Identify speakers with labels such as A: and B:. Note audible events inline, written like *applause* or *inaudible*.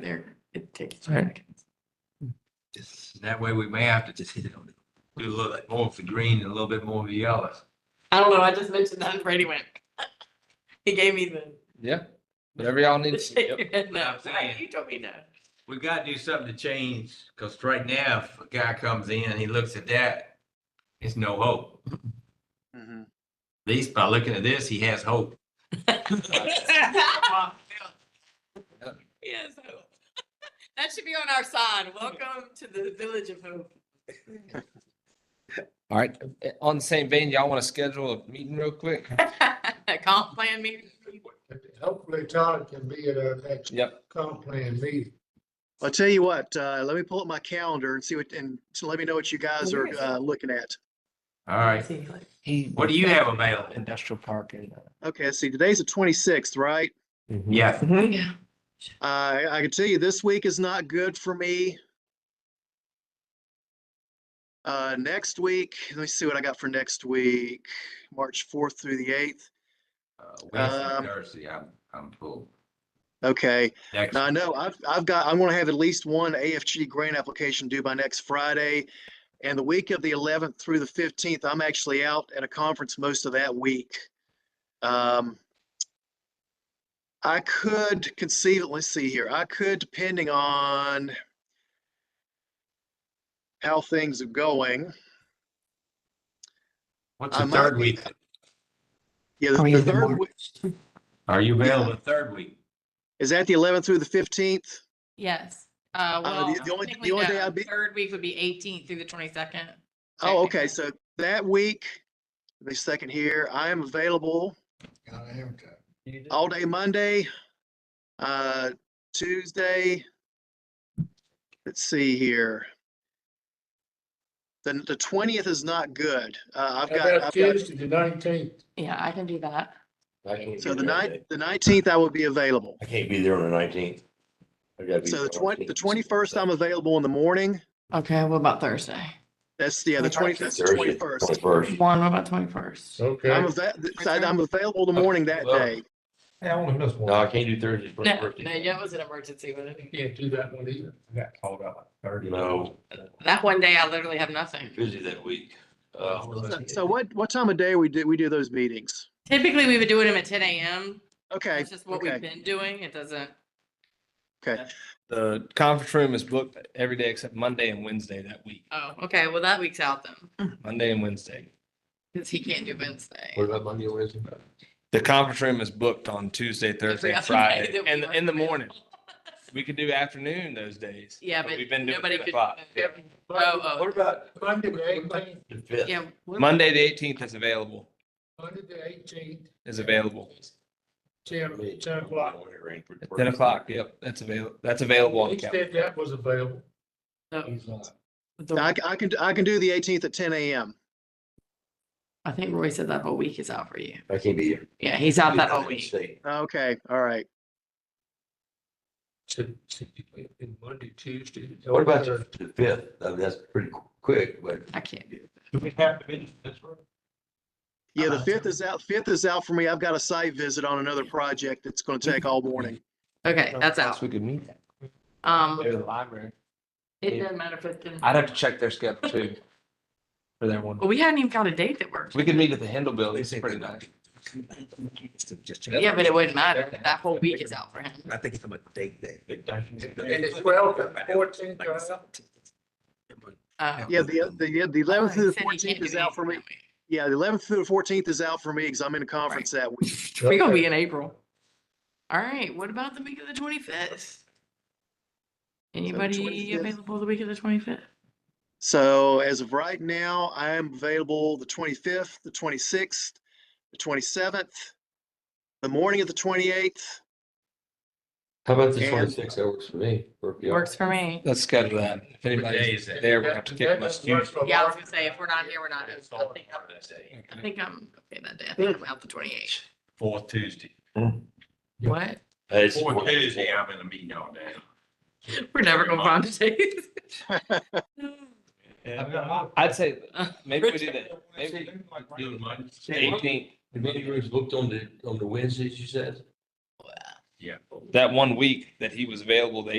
A: there, it takes.
B: Right.
A: back.
C: Just, that way we may have to just, *laughs* you know, do a little bit more for green and a little bit more for yellow.
A: I don't know, I just mentioned that and Brady went. *laughs* He gave me the.
B: Yeah, whatever y'all
A: the
B: need.
A: shake *laughs* your head
C: Yeah,
A: no.
C: I'm saying.
A: You told me
D: *laughs*
A: no.
C: We gotta do something to change, cause right now, if a guy comes in, he looks at that, it's no hope. At
D: Mhm.
C: least by looking at this, he has hope.
A: Yes. hope. That should be on our sign. Welcome to the Village of Hope. *laughs*
B: All right, eh, on the same vein, y'all want to schedule a meeting real quick?
A: Comp plan meeting.
E: Hopefully Todd can be at our next
B: Yep.
E: comp plan meeting.
D: I'll tell you what, uh, let me pull up my calendar and see what, and so let me know what you guys are, uh, looking at.
C: All right, what do you have available?
B: Industrial park and. uh,
D: Okay, let's see, today's the twenty-sixth, right?
C: Yeah,
A: Yeah.
D: Uh, I can tell you this week is not good for me. Uh, next week, let me see what I got for next week, March fourth through the eighth.
C: uh, Wednesday,
D: Um,
C: Thursday, I'm, I'm full.
D: Okay,
C: Next,
D: now I know I've, I've got, I'm gonna have at least one AFG grant application due by next Friday. And the week of the eleventh through the fifteenth, I'm actually out at a conference most of that week. Um, I could conceive, let's see here, I could, depending on how things are going.
C: what's
D: I
C: the
D: might
C: third
D: be-
C: week?
D: Oh, Yeah, the- the third, week-
C: Are you available the third week?
D: is that the eleventh through the fifteenth?
A: Yes. Uh,
D: Uh,
A: well.
D: the- the only- the
A: technically,
D: only day
A: no.
D: I'd be-
A: Third week would be eighteenth through the twenty-second.
D: Oh, okay,
A: Technically.
D: so that week, the second here, I am available
E: Gotta have to.
A: Mm-hmm.
D: all day Monday, uh, Tuesday. Let's see here. Then the twentieth is not good. Uh, I've
E: How
D: got,
E: about
D: I've got,
E: Tuesday, the nineteenth?
A: Yeah, I can do that.
D: so the night, the nineteenth I will be available.
F: I can't be there on the nineteenth.
D: So the twenty, the twenty-first, I'm available in the morning.
A: Okay, what about Thursday?
D: That's, yeah, the twenty, that's the twenty-first.
F: Twenty-first.
A: One, what about twenty-first?
E: Okay.
D: I'm ava- I'm available the morning that
F: Well,
D: day.
C: Hey, I only missed
F: No, I can't do Thursday.
A: No, no, that was an emergency, but it-
E: Can't do that one either.
C: I got called up like thirty.
F: No,
A: that one day I literally have nothing.
F: busy that week. Uh,
D: So- So what, what time of day we do, we do those meetings?
A: Typically, we would do it at ten AM.
D: Okay,
A: It's just what we've
D: okay,
A: been doing. It doesn't.
B: The conference room is booked every day except Monday and Wednesday that week,
A: Oh, okay. Well, that week's out then,
B: Monday and Wednesday.
A: because he can't do Wednesday.
F: What about Monday, Wednesday?
B: The conference room is booked on Tuesday, Thursday,
A: Every
B: and
A: other day
B: Friday,
A: that we
B: and
A: weren't
B: in the
A: available.
B: morning. We could do afternoon those days.
A: Yeah, but
B: We've been doing
A: nobody
B: 10
A: could.
B: o'clock.
A: Yeah. Oh, oh,
F: What about
E: Monday, the eighteenth,
F: the fifth?
A: yeah. what-
B: Monday, the eighteenth is available,
E: Monday, the eighteenth,
B: is available.
E: ten, ten o'clock.
B: At Ten o'clock, yep, that's avail, that's available on the
E: He
B: calendar.
E: said that was available.
A: no,
E: He's not.
D: I,
A: the-
D: c- I can, I can do the eighteenth at ten AM.
A: I think Roy said that whole week is out for you.
F: I can't be here.
A: Yeah, he's out that whole week.
D: Okay, all right.
E: To- to- in Monday, Tuesday.
F: What about the the fifth? I mean, that's pretty qu- quick, but
A: I can't do. it.
C: Do we have to be this room?
D: Yeah, the
E: Uh,
D: fifth is out, fifth is out for me. I've got a site visit on another project that's gonna take all morning.
A: Okay, that's
B: Perhaps
A: out.
B: We could meet that.
A: Um,
B: Go to the library.
A: it doesn't matter if it's. in-
B: I'd have to check their schedule too. For their one.
A: Well, we hadn't even found a date that works.
B: We could meet at the Handel Building. It's
F: They say
B: pretty
F: they're
B: nice.
A: Yeah, but it wouldn't matter. That whole week is out for him.
F: I think it's on a date day.
E: And it's welcome, fourteenth,
A: Uh,
D: Yeah, the, the, the eleventh
A: Oh, he said
D: through the
A: he can't
D: fourteenth
A: do
D: is out for me.
A: anything that week.
D: Yeah, the eleventh through the fourteenth is out for me because I'm in a conference that week.
A: We're gonna be in April. All right, what about the week of the twenty-fifth? Anybody
D: 25th?
A: available the week of the twenty-fifth?
D: So as of right now, I am available the twenty-fifth, the twenty-sixth, the twenty-seventh, the morning of the twenty-eighth.
F: How about the
D: And-
F: twenty-sixth? That works for me. Work for y'all.
A: Works for me.
B: Let's schedule that. If
C: day
B: anybody's
C: is that?
B: there, we have to kick them.
A: Yeah, I was gonna say, if we're not here, we're not. I think I'm- I think I'm okay that day. I think I'm out the twenty-eighth.
C: Fourth Tuesday.
E: Yeah.
A: What? *laughs*
F: Uh, it's-
C: Fourth Tuesday, I'm in a meeting all day.
A: We're never gonna find a date.
B: I'd say maybe we do
C: *laughs*
B: that. Maybe
C: Doing Monday.
B: eighteenth,
F: The meeting room's booked on the, on the Wednesdays, you said?
C: Yeah.
B: that one week that he was available, the